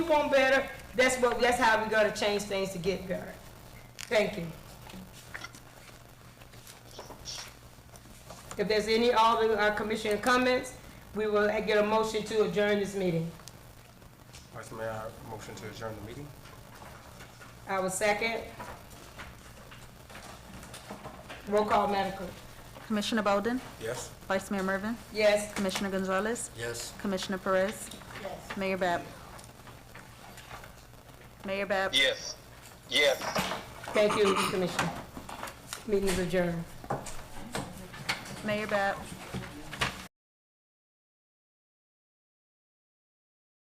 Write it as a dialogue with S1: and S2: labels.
S1: want better, that's what, that's how we're gonna change things to get better. Thank you. If there's any other uh, commissioner comments, we will get a motion to adjourn this meeting.
S2: Vice Mayor, I motion to adjourn the meeting.
S1: I will second. Roll call, Madam Clerk.
S3: Commissioner Bolden?
S2: Yes?
S3: Vice Mayor Mervin?
S1: Yes.
S3: Commissioner Gonzalez?
S2: Yes.
S3: Commissioner Perez? Yes. Mayor Bab? Mayor Bab?
S4: Yes. Yes.
S1: Thank you, Commissioner. Meeting is adjourned.
S3: Mayor Bab?